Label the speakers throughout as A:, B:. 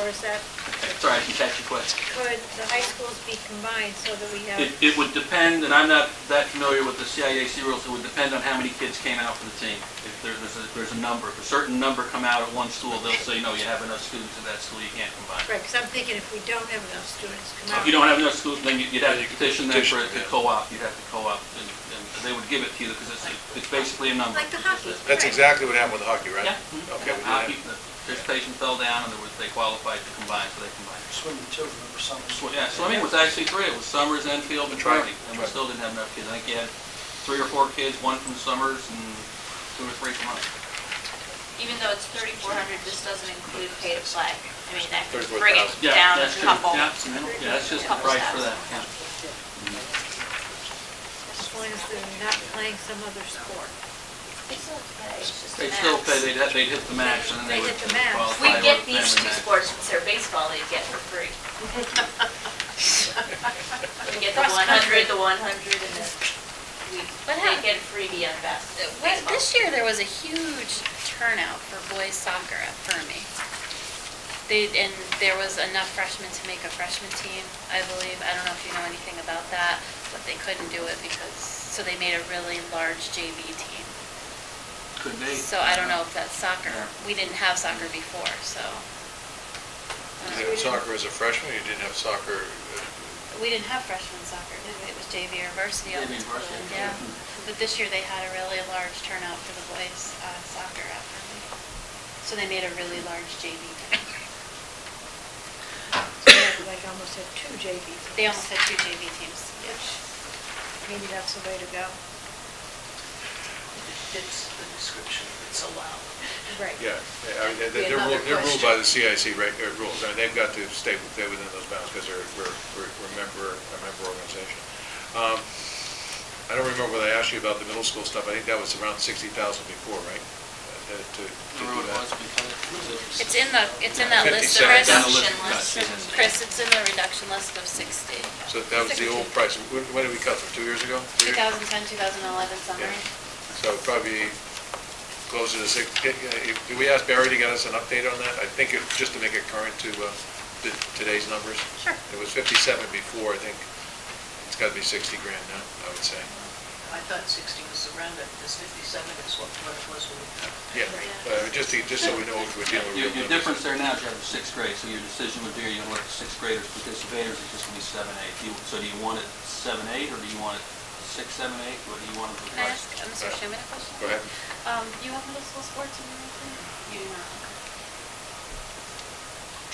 A: Or is that,
B: Sorry, I can catch your question.
A: could the high schools be combined so that we have,
B: It, it would depend, and I'm not that familiar with the CIAC rules, it would depend on how many kids came out for the team. If there- there's a, there's a number, if a certain number come out at one school, they'll say, no, you have enough students at that school, you can't combine.
A: right, because I'm thinking if we don't have enough students come out.
B: If you don't have enough schools, then you'd you'd have to petition them for it to
C: Petition, yeah.
B: co-op, you'd have to co-op, and, and they would give it to you, because it's, it's basically a number.
A: Like the hockey.
C: That's
A: Right.
C: exactly what happened with hockey, right?
B: Yeah. Mm-hmm.
C: Okay, we did
B: Hockey, the
C: that.
B: participation fell down, and there was, they qualified to combine, so they combined.
D: Swimming too, remember summer?
B: Sw- Yeah, swimming was actually three, it was Summers, Enfield, and
C: That's right.
B: Trinity, and we
C: That's right.
B: still didn't have enough kids. I think you had three or four kids, one from Summers and two or three from us.
E: Even though it's thirty-four hundred, this doesn't include pay to play. I mean, that could bring it
C: 34,000.
B: Yeah,
E: down a
B: that's true.
E: couple.
B: Yeah, yeah, that's just the
E: Couple
B: price for that,
E: steps.
B: yeah.
A: As long as they're not playing some other sport.
E: They still pay, it's just a
B: They'd still
E: max.
B: pay, they'd, have- they'd hit the max, and then they
A: They
B: would
A: hit the max.
B: qualify.
E: We
B: with
E: get
B: the
E: these
B: family
E: two
B: max.
E: sports, it's their baseball they get for free. We get the
A: Cross
E: one hundred,
A: country.
E: the one hundred, and then we,
F: What
E: they
F: happened?
E: get a freebie on best.
F: Uh, wait, This year, there was a huge turnout for boys soccer at Fermi. They, and there was enough freshmen to make a freshman team, I believe. I don't know if you know anything about that, but they couldn't do it because, so they made a really large JV team.
B: Could be.
F: So I don't know if that's soccer.
B: Yeah.
F: We didn't have soccer before, so.
C: You didn't have soccer as a freshman, you didn't have soccer, uh,
F: We didn't have freshman soccer, did we? It was JV or varsity all
B: JV
F: the time.
B: varsity.
F: Yeah.
B: Mhm.
F: But this year, they had a really large turnout for the boys uh, soccer after me. So they made a really large JV team.
A: So they like almost have two JV teams.
F: They almost had two JV teams.
A: Maybe that's the way to go.
D: It's the description, it's allowed.
A: Right.
C: yeah, they- I mean, they- they're
D: Another
C: ruled, they're ruled
D: question.
C: by the CIC reg- uh, rules. I mean, they've got to stay stay within those bounds because they're, we're, we're we're a member, a member organization. Um, I don't remember whether I asked you about the middle school stuff. I think that was around sixty thousand before, right? Uh, to- to- to
B: The
C: do
B: road
C: that.
B: was because
F: It's in the, it's in that list,
C: Fifty-seven.
F: Chris.
B: Down the list,
E: Reduction
B: yes, yes.
F: Chris, it's in the reduction list of 60.
C: So that was the old price. When, when did we cut them? Two years ago? Three years?
F: 2010, 2011 summer.
C: Yeah. So it'd probably closer to six, get- uh, if- do we ask Barry to get us an update on that? I think it, just to make it current to uh, t- today's numbers.
F: Sure.
C: It was 57 before, I think. It's got to be 60 grand now, I would say.
D: I thought 60 was around it, this 57 is what what it was when we cut.
C: Yeah, Uh, just to, just so we know if we're dealing with real
B: Your, your
C: numbers.
B: difference there now is you have the sixth grade, so your decision would be, are you gonna let the sixth graders participate, or is it just gonna be seven, eight? Do you- So do you want it seven, eight, or do you want it six, seven, eight, or do you want it?
F: Can I ask uh, Mr. Schuman a question?
C: Go ahead.
F: Um, Do you have middle school sports in your life? You do not.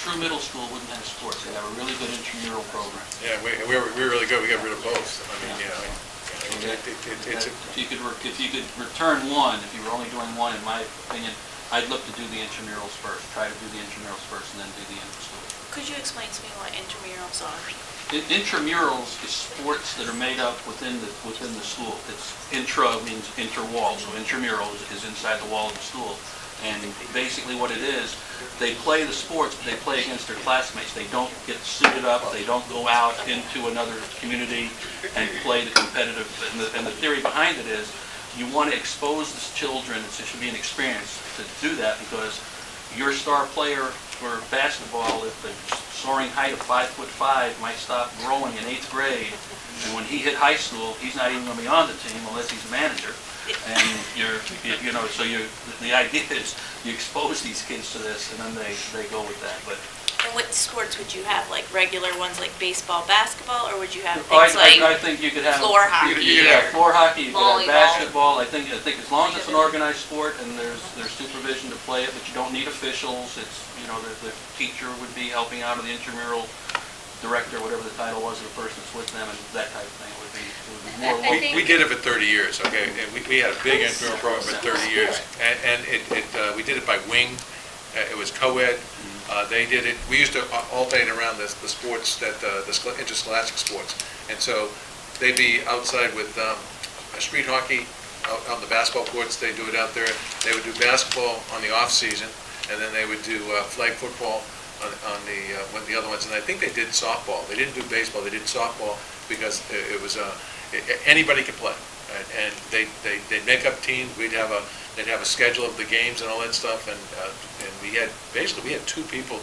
B: True middle school wouldn't have sports, they have a really good intramural program.
C: Yeah, we, we were, we were really good. We got rid of both. I mean, yeah. I- yeah, it- it- it- It's,
B: If you could, re- if you could return one, if you were only doing one, in my opinion, I'd look to do the intramurals first, try to do the intramurals first, and then do the in-school.
E: Could you explain to me what intramurals are?
B: In- Intramurals is sports that are made up within the, within the school. It's intra means interwall, so intramural is- is inside the wall of the school. And basically what it is, they play the sports, but they play against their classmates. They don't get suited up, they don't go out into another community and play the competitive. And the, and the theory behind it is, you want to expose the children, it should be an experience to do that because your star player for basketball, if the soaring height of five foot five might stop growing in eighth grade, and when he hit high school, he's not even gonna be on the team unless he's a manager. And you're, you- you know, so you, the idea is you expose these kids to this, and then they, they go with that, but.
E: And what sports would you have, like regular ones like baseball, basketball, or would you have
B: Oh, I-
E: things like?
B: I, I think you could have.
E: floor
B: you could-
E: hockey
B: You could have
E: or
B: floor hockey, you could have
E: volleyball.
B: basketball, I think, I think as long as it's an organized sport and there's, there's supervision to play it, but you don't need officials, it's, you know, the, the teacher would be helping out or the intramural director, whatever the title was, of the person that's with them and that type of thing, it would be, it would be more.
F: I- I
B: local.
F: think- Oh,
C: We, we did it for 30 years, okay? And we, we had a big intramural program for 30 years. And, and it, it, uh, we did it by wing. Uh, It was co-ed.
F: Mm-hmm.
C: Uh, they did it, we used to al- alternate around the, the sports that, uh, the schol- interscholastic sports. And so they'd be outside with, um, street hockey out on the basketball courts. They do it out there. They would do basketball on the off-season and then they would do, uh, flag football on, on the, uh, one of the other ones, and I think they did softball. They didn't do baseball, they did softball because it it was, uh, a- a- anybody could play. And- And they, they, they'd make up teams, we'd have a, they'd have a schedule of the games and all that stuff, and, uh, and we had, basically, we had two people